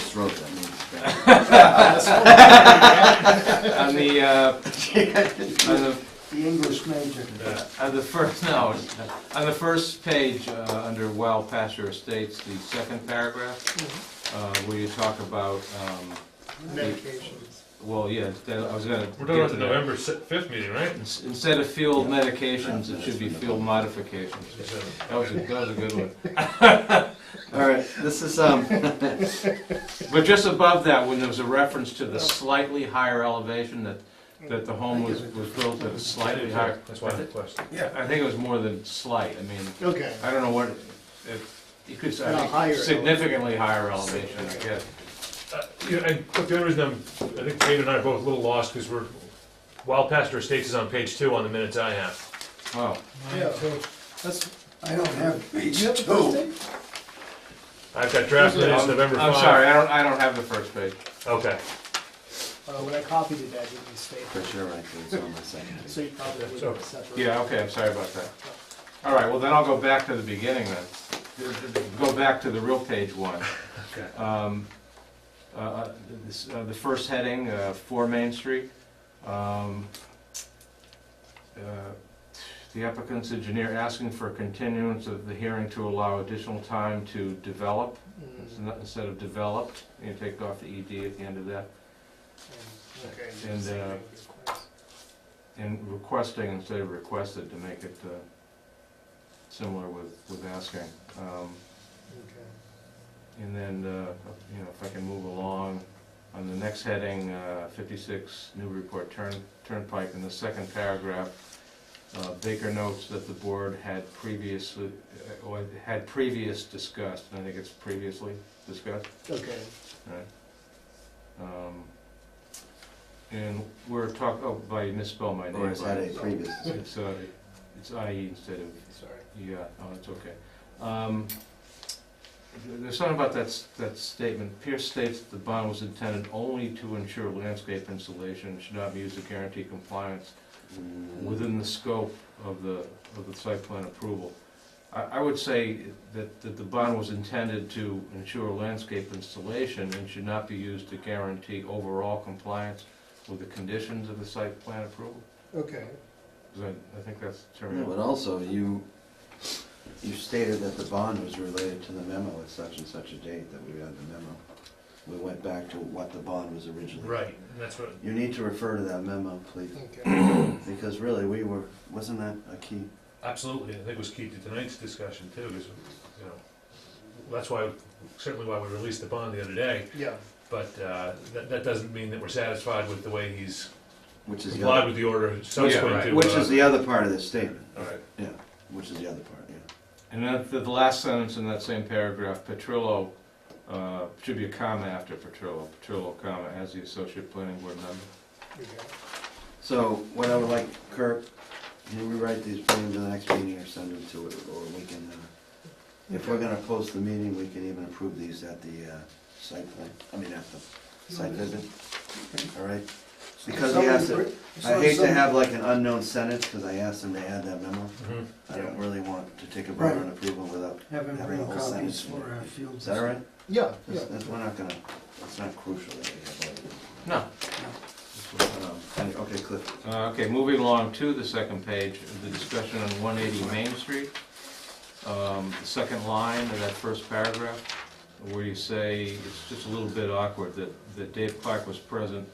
throat, that means. On the, uh, on the, The English major. on the first, no, on the first page, uh, under Wild Pasture Estates, the second paragraph, uh, where you talk about, um, Medications. well, yeah, that- I was gonna. We're done get with to the that. November si- fifth meeting, right? Ins- Instead of field medications, it should be field modifications. That was, a- that was a good one. All right, this is, um, But just above that, when there was a reference to the slightly higher elevation, that, that the home was, was built at a slightly higher. That's why I had a question. Yeah. I think it was more than slight, I mean, Okay. I don't know what, if, you could, say, No, I higher think significantly higher elevation, I guess. Uh, yeah, and look, the only reason I'm, I think Dave and I are both a little lost, because we're, Wild Pasture Estates is on page two on the minutes I have. Oh, Yeah. That's, I don't have page you have the first two. thing? I've got draft minutes November Um, I'm five. sorry, I don't, I don't have the first page. Okay, Uh, when I copied it, I didn't state it, but you're right, it's on the second page. so you probably would So- have separated. Yeah, okay, I'm sorry about that. All right, well, then I'll go back to the beginning then. Go back to the real page one. Okay. Um, uh, uh, this- uh, The first heading, uh, for Main Street. Um, uh, The applicant's engineer asking for a continuance of the hearing to allow additional time to develop, Mm, instead of developed, you take off the ED at the end of that. Okay. And, uh, And requesting instead of requested to make it uh, similar with, with asking. Um, uh, Okay. And then, uh, you know, if I can move along, on the next heading, uh, 56 Newburyport Turn- Turnpike, in the second paragraph, uh, Baker notes that the board had previously, uh, or had previous discussed, and I think it's previously discussed, Okay, Right. Um, And we're talking, oh, by misspell my name. Or is that a previous? It's, uh, it's IE instead of sorry. yeah, oh, it's okay. Um, th- There's something about that, s- that statement, Pierce states that the bond was intended only to ensure landscape insulation, and should not be used to guarantee compliance Mm. within the scope of the, of the site plan approval. I, I would say that, that the bond was intended to ensure landscape installation and should not be used to guarantee overall compliance with the conditions of the site plan approval, Okay, 'Cause I, I think that's No, terrible. but also, you, you stated that the bond was related to the memo at such and such a date that we had the memo. We went back to what the bond was originally. right, and that's what, You need to refer to that memo, please, okay. because really, we were, wasn't that a key? absolutely, I think was key to tonight's discussion too, is, you know, that's why, certainly why we released the bond the other day, Yeah, but, uh, that, that doesn't mean that we're satisfied with the way he's Which is the complied other, with the order subsequent to. which uh, is the other part of this statement, All right. yeah, which is the other part, yeah. And then the, the last sentence in that same paragraph, Petrillo, uh, should be a comma after Petrillo, Petrillo, comma, as the associate planning board member. okay. So what I would like, Kirk, can we write these plans to the next meeting or send them to, or we can, uh, if we're gonna post the meeting, we can even approve these at the, uh, site plan, I mean, at the site visit, all right? Because he has to, I hate to have like an unknown sentence, because I asked him to add that memo. Mhm. I don't really want to take a vote on approval without, Have him Having bring a whole copies sentence. for our field. is that all right? Yeah, yeah. That's, that's, we're not gonna, it's not crucial that we No. have all of them. Um, Okay, Cliff, Uh, okay, moving along to the second page, the discussion on one eighty Main Street. Um, the second line of that first paragraph, where you say, it's just a little bit awkward, that, that Dave Clark was present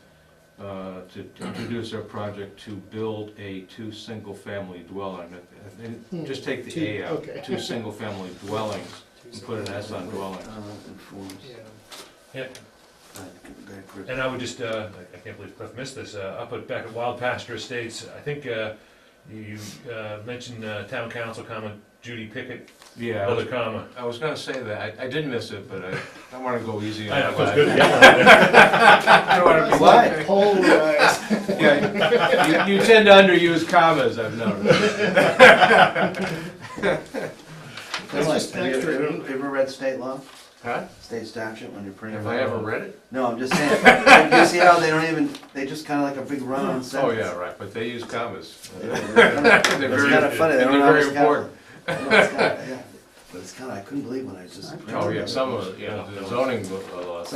uh, to to introduce our project to build a two single-family dwelling. And- and Just take Hmm. Two, the A out, okay. two single-family dwellings. Two Put an S on uh, dwelling. informs, seconds. Yeah. Yeah, uh, go ahead, Chris. And I would just, uh, I- I can't believe Cliff missed this, uh, up at, back at Wild Pasture Estates, I think, uh, you, uh, mentioned, uh, town council comment, Judy Pickett, Yeah, I another was, comma. I was gonna say that, I, I did miss it, but I, I wanna go easy on I know, that. it was good to get one. I don't wanna be- Why? Polarized. Yeah, you, you tend to underuse commas, I've noticed. That's That's just like- have you extra. Ever ever read state law, Huh? state statute when you're printing? Have I ever read it? No, I'm just saying, like, you see how they don't even, they just kinda like a big run-on Oh, sentence. yeah, right, but they use commas. It's They're kinda very, funny, they and don't they're very always have. important. I know, it's kinda- yeah. But it's kinda, I couldn't believe when I just. Oh, yeah, some of, it, yeah, the zoning laws.